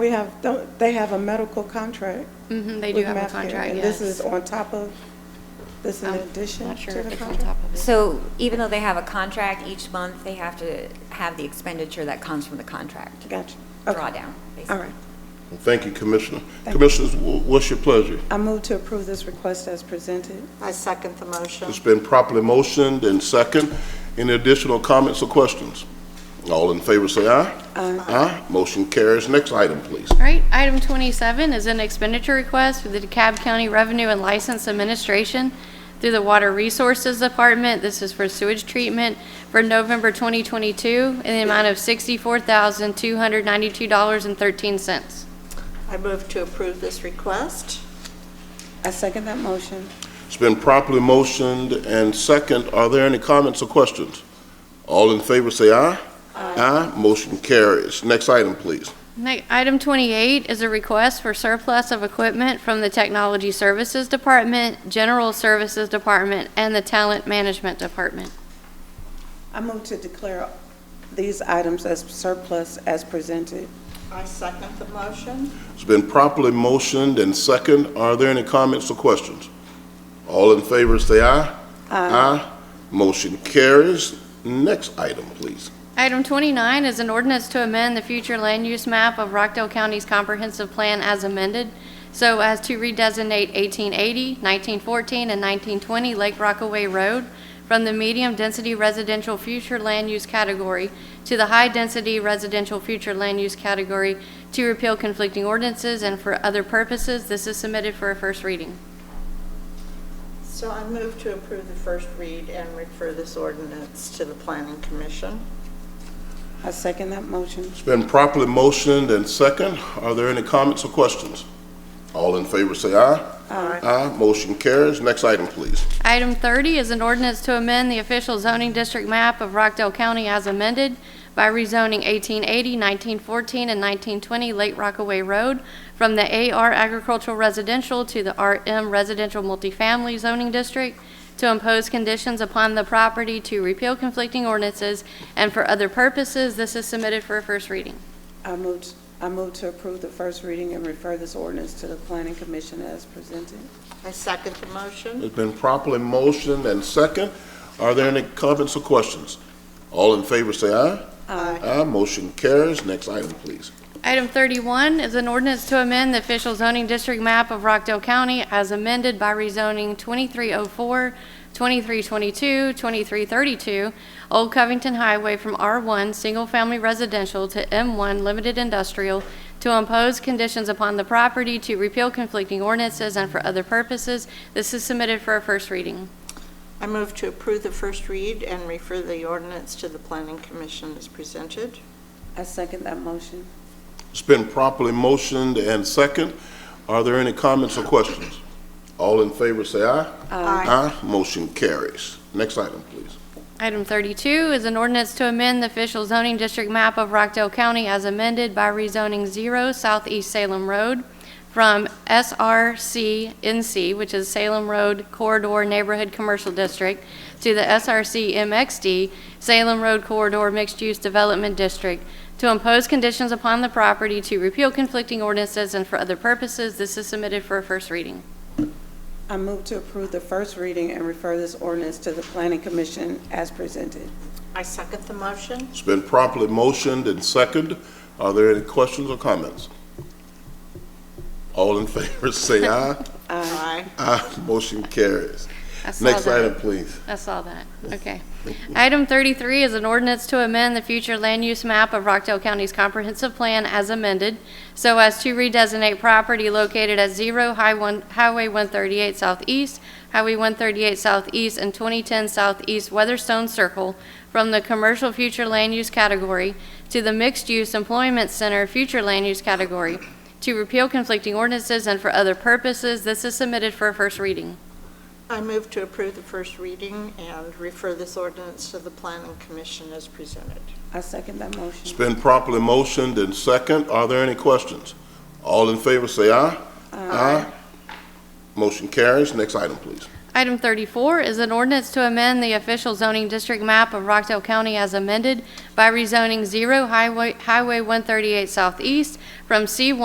We have, don't- they have a medical contract. Mhm, They do with have a Mapcare, contract, And this is yes. Um, on top of, this is in I'm addition Not sure to if the it's on top contract? of it. So even though they have a contract, each month they have to have the expenditure that comes from the contract. Gotcha. Okay. Drawdown, All basically. right. Thank you, Commissioner. Thank you. Commissioners, wh- what's your pleasure? I move to approve this request as presented. I second the motion. It's been properly motioned and second. Any additional comments or questions? All in favor, say aye. Aye. Motion carries. Next item, please. All right, item 27 is an expenditure request for the DeKalb County Revenue and License Administration through the Water Resources Department. This is for sewage treatment for November 2022 in the amount of $64,292.13. I move to approve this request. I second that motion. It's been properly motioned and second. Are there any comments or questions? All in favor, say aye. Aye. Motion carries. Next item, please. Ne- Item 28 is a request for surplus of equipment from the Technology Services Department, General Services Department, and the Talent Management Department. I move to declare these items as surplus as presented. I second the motion. It's been properly motioned and second. Are there any comments or questions? All in favor, say aye. Uh, Aye. Motion carries. Next item, please. Item 29 is an ordinance to amend the future land use map of Rockdale County's comprehensive plan as amended, so as to redesignate 1880, 1914, and 1920 Lake Rockaway Road from the medium-density residential future land use category to the high-density residential future land use category to repeal conflicting ordinances and for other purposes. This is submitted for a first reading. So I move to approve the first read and refer this ordinance to the Planning Commission. I second that motion. It's been properly motioned and second. Are there any comments or questions? All in favor, say aye. Aye. Aye. Motion carries. Next item, please. Item 30 is an ordinance to amend the official zoning district map of Rockdale County as amended by rezoning 1880, 1914, and 1920 Lake Rockaway Road from the AR Agricultural Residential to the RM Residential Multifamily Zoning District to impose conditions upon the property to repeal conflicting ordinances and for other purposes. This is submitted for a first reading. I move, I move to approve the first reading and refer this ordinance to the planning commission as presented. I second the motion. It's been properly motioned and second. Are there any comments or questions? All in favor, say aye. Uh, Aye. Aye. Motion carries. Next item, please. Item 31 is an ordinance to amend the official zoning district map of Rockdale County as amended by rezoning 2304, 2322, 2332 Old Covington Highway from R1 Single Family Residential to M1 Limited Industrial to impose conditions upon the property to repeal conflicting ordinances and for other purposes. This is submitted for a first reading. I move to approve the first read and refer the ordinance to the Planning Commission as presented. I second that motion. It's been properly motioned and second. Are there any comments or questions? All in favor, say aye. Uh, Aye. Motion carries. Next item, please. Item 32 is an ordinance to amend the official zoning district map of Rockdale County as amended by rezoning 0 Southeast Salem Road from SRC NC, which is Salem Road Corridor Neighborhood Commercial District, to the SRC MXD, Salem Road Corridor Mixed Use Development District, to impose conditions upon the property to repeal conflicting ordinances and for other purposes. This is submitted for a first reading. I move to approve the first reading and refer this ordinance to the planning commission as presented. I second the motion. It's been properly motioned and second. Are there any questions or comments? All in favor, say aye. Aye. Aye, motion carries. I saw Next that. item, please. I saw that. Okay. Item 33 is an ordinance to amend the future land use map of Rockdale County's comprehensive plan as amended so as to redesignate property located at 0 High One- Highway 138 Southeast, Highway 138 Southeast, and 2010 Southeast Weatherstone Circle from the commercial future land use category to the mixed-use employment center future land use category to repeal conflicting ordinances and for other purposes. This is submitted for a first reading. I move to approve the first reading and refer this ordinance to the Planning Commission as presented. I second that It's motion. been properly motioned and second. Are there any questions? All in favor, say aye. Aye. Motion carries. Next item, please. Item 34 is an ordinance to amend the official zoning district map of Rockdale County as amended by rezoning 0 Highway Highway 138 Southeast from C1